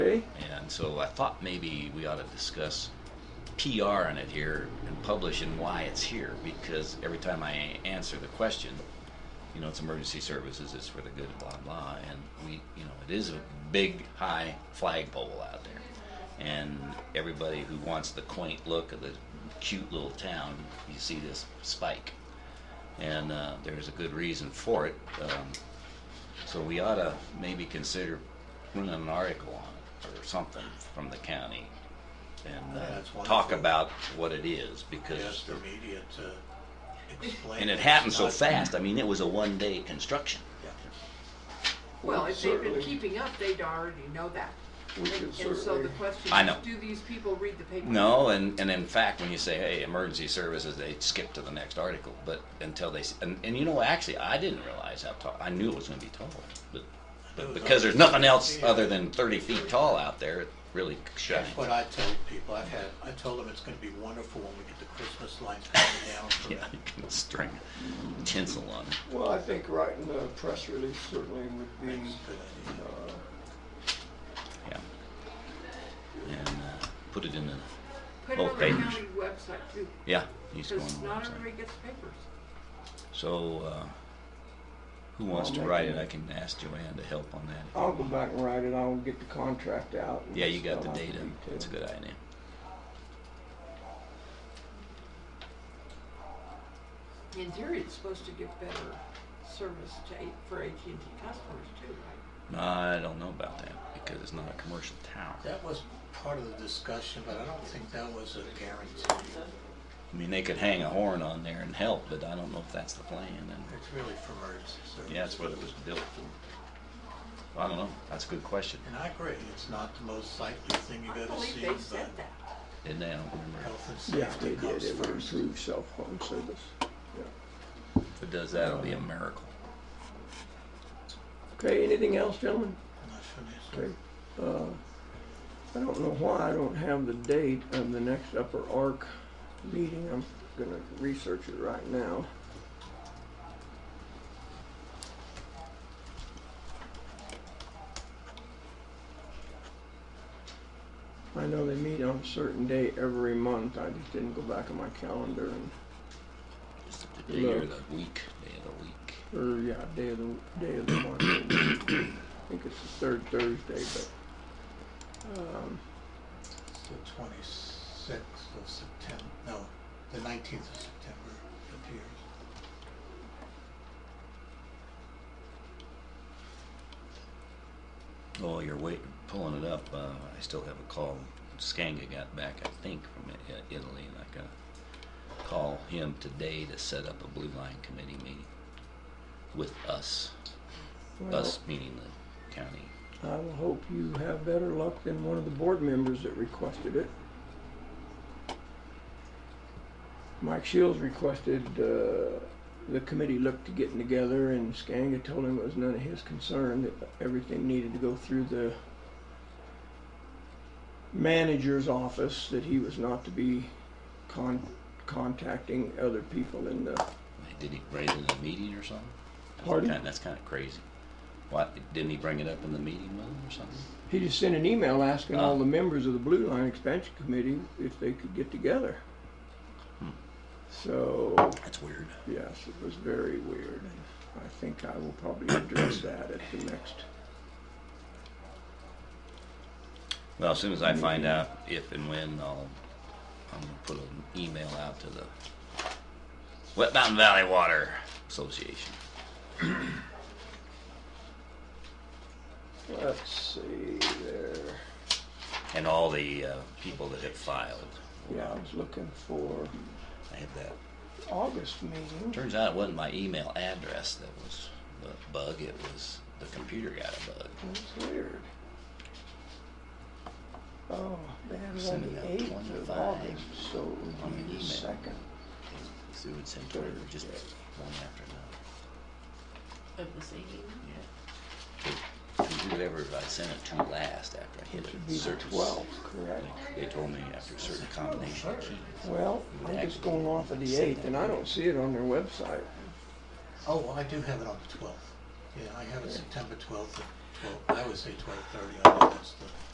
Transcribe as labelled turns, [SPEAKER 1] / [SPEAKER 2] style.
[SPEAKER 1] And so I thought maybe we ought to discuss PR on it here and publish and why it's here, because every time I answer the question, you know, it's emergency services, it's for the good, blah, blah, and we, you know, it is a big, high flagpole out there. And everybody who wants the quaint look of the cute little town, you see this spike. And uh, there's a good reason for it. Um, so we ought to maybe consider running an article on it or something from the county and
[SPEAKER 2] Yeah,
[SPEAKER 1] uh,
[SPEAKER 2] that's wonderful.
[SPEAKER 1] talk about what it is because
[SPEAKER 2] Ask the media to explain.
[SPEAKER 1] and it
[SPEAKER 2] it's
[SPEAKER 1] happened so
[SPEAKER 2] not-
[SPEAKER 1] fast. I mean, it was a one-day construction.
[SPEAKER 2] Yeah.
[SPEAKER 3] Well, if they've been
[SPEAKER 4] Certainly.
[SPEAKER 3] keeping up, they'd already know that.
[SPEAKER 4] We
[SPEAKER 3] And-
[SPEAKER 4] can
[SPEAKER 3] And so the
[SPEAKER 4] certainly-
[SPEAKER 3] question
[SPEAKER 1] I
[SPEAKER 3] is,
[SPEAKER 1] know.
[SPEAKER 3] do these people read the paper?
[SPEAKER 1] No, and, and in fact, when you say, hey, emergency services, they skip to the next article. But until they, s- and, and you know, actually, I didn't realize how tall, I knew it was going to be tall. But, but because there's nothing else other than 30 feet tall out there, it really shines.
[SPEAKER 2] That's what I tell people, I've had, I told them it's gonna be wonderful when we get the Christmas lights coming down from
[SPEAKER 1] Yeah,
[SPEAKER 2] that.
[SPEAKER 1] you can string tinsel on it.
[SPEAKER 4] Well, I think writing a press release certainly would be,
[SPEAKER 2] That's a good idea.
[SPEAKER 4] uh,
[SPEAKER 1] Yeah. And uh, put it in the,
[SPEAKER 3] Put it
[SPEAKER 1] Both
[SPEAKER 3] on the
[SPEAKER 1] papers.
[SPEAKER 3] county website too,
[SPEAKER 1] yeah, he's going on
[SPEAKER 3] because
[SPEAKER 1] the
[SPEAKER 3] not
[SPEAKER 1] website.
[SPEAKER 3] everybody gets papers.
[SPEAKER 1] So, uh, who wants
[SPEAKER 4] I'll
[SPEAKER 1] to
[SPEAKER 4] make
[SPEAKER 1] write
[SPEAKER 4] a-
[SPEAKER 1] it? I can ask Joanne to help on that.
[SPEAKER 4] I'll go back and write it, I'll get the contract out. and
[SPEAKER 1] Yeah, you got the
[SPEAKER 4] stuff.
[SPEAKER 1] data. That's a good idea.
[SPEAKER 3] In theory, it's supposed to give better service to, A- for AT&T customers too, right?
[SPEAKER 1] No, I don't know about that because it's not a commercial tower.
[SPEAKER 2] That was part of the discussion, but I don't think that was a guarantee.
[SPEAKER 1] I mean, they could hang a horn on there and help, but I don't know if that's the plan. And
[SPEAKER 2] It's really for emergency services.
[SPEAKER 1] yeah, that's what it was built for. I don't know. That's a good question.
[SPEAKER 2] And I agree, it's not the most likely thing you
[SPEAKER 3] I
[SPEAKER 2] go to
[SPEAKER 3] believe
[SPEAKER 2] see,
[SPEAKER 3] they said
[SPEAKER 2] but
[SPEAKER 3] that.
[SPEAKER 1] Didn't they? I don't remember.
[SPEAKER 2] health and
[SPEAKER 4] Yeah,
[SPEAKER 2] safety
[SPEAKER 4] they did,
[SPEAKER 2] comes
[SPEAKER 4] it would
[SPEAKER 2] first.
[SPEAKER 4] improve cell phone service. Yeah.
[SPEAKER 1] If it does that, it'll be a miracle.
[SPEAKER 4] Okay, anything else, gentlemen?
[SPEAKER 2] And that's what it is.
[SPEAKER 4] Okay. Uh, I don't know why I don't have the date of the next Upper Ark meeting. I'm gonna research it right now. I know they meet on a certain day every month. I just didn't go back on my calendar and,
[SPEAKER 1] Just the day or
[SPEAKER 4] Look.
[SPEAKER 1] the week, day of the week.
[SPEAKER 4] or, yeah, day of the, day of the month. I think it's the third Thursday, but, um,
[SPEAKER 2] It's the twenty-sixth of September, no, the nineteenth of September appears.
[SPEAKER 1] Oh, you're wait, pulling it up. Uh, I still have a call. Skanga got back, I think, from I- I- Italy, and I gotta call him today to set up a Blue Line Committee meeting with us.
[SPEAKER 4] well.
[SPEAKER 1] Us meaning the county.
[SPEAKER 4] I will hope you have better luck than one of the board members that requested it. Mike Shields requested, uh, the committee look to getting together and Skanga told him it was none of his concern, that everything needed to go through the manager's office, that he was not to be con- contacting other people in the,
[SPEAKER 1] Wait, Did he raise it in a meeting or something? That's
[SPEAKER 4] Pardon?
[SPEAKER 1] kinda- That's kinda crazy. What, didn't he bring it up in the meeting with him or something?
[SPEAKER 4] he just sent an email asking
[SPEAKER 1] Ah.
[SPEAKER 4] all the members of the Blue Line Expansion Committee if they could get together.
[SPEAKER 1] Hmm.
[SPEAKER 4] So,
[SPEAKER 1] That's weird.
[SPEAKER 4] Yes, it was very weird. I think I will probably address that at the next.
[SPEAKER 1] Well, as soon as I find out if and when, I'll, I'm gonna put an email out to the Wet Mountain Valley Water Association.
[SPEAKER 4] Let's see there.
[SPEAKER 1] and all the uh, people that have filed.
[SPEAKER 4] Yeah, I was looking for
[SPEAKER 1] I had that.
[SPEAKER 4] August meeting.
[SPEAKER 1] Turns out it wasn't my email address that was the bug. It was the computer got a bug.
[SPEAKER 4] That's weird. Oh, they had it on
[SPEAKER 1] Sending out
[SPEAKER 4] the eighth of
[SPEAKER 1] 25
[SPEAKER 4] August, so it would
[SPEAKER 1] on
[SPEAKER 4] be
[SPEAKER 1] an
[SPEAKER 4] the
[SPEAKER 1] email.
[SPEAKER 4] second.
[SPEAKER 1] So it would send Twitter just one after another.
[SPEAKER 3] Of the same evening?
[SPEAKER 1] Yeah. Because whoever I sent it to last after I hit
[SPEAKER 4] It would
[SPEAKER 1] a
[SPEAKER 4] be the
[SPEAKER 1] certain
[SPEAKER 4] twelfth, correct?
[SPEAKER 1] They told me after a certain combination of keys.
[SPEAKER 4] Well, I'm just going off of the eighth, and I don't see it on their website.
[SPEAKER 2] Oh, well, I do have it on the twelfth. Yeah, I have it September twelfth, twelve, I would say twelve thirty, I know that's the.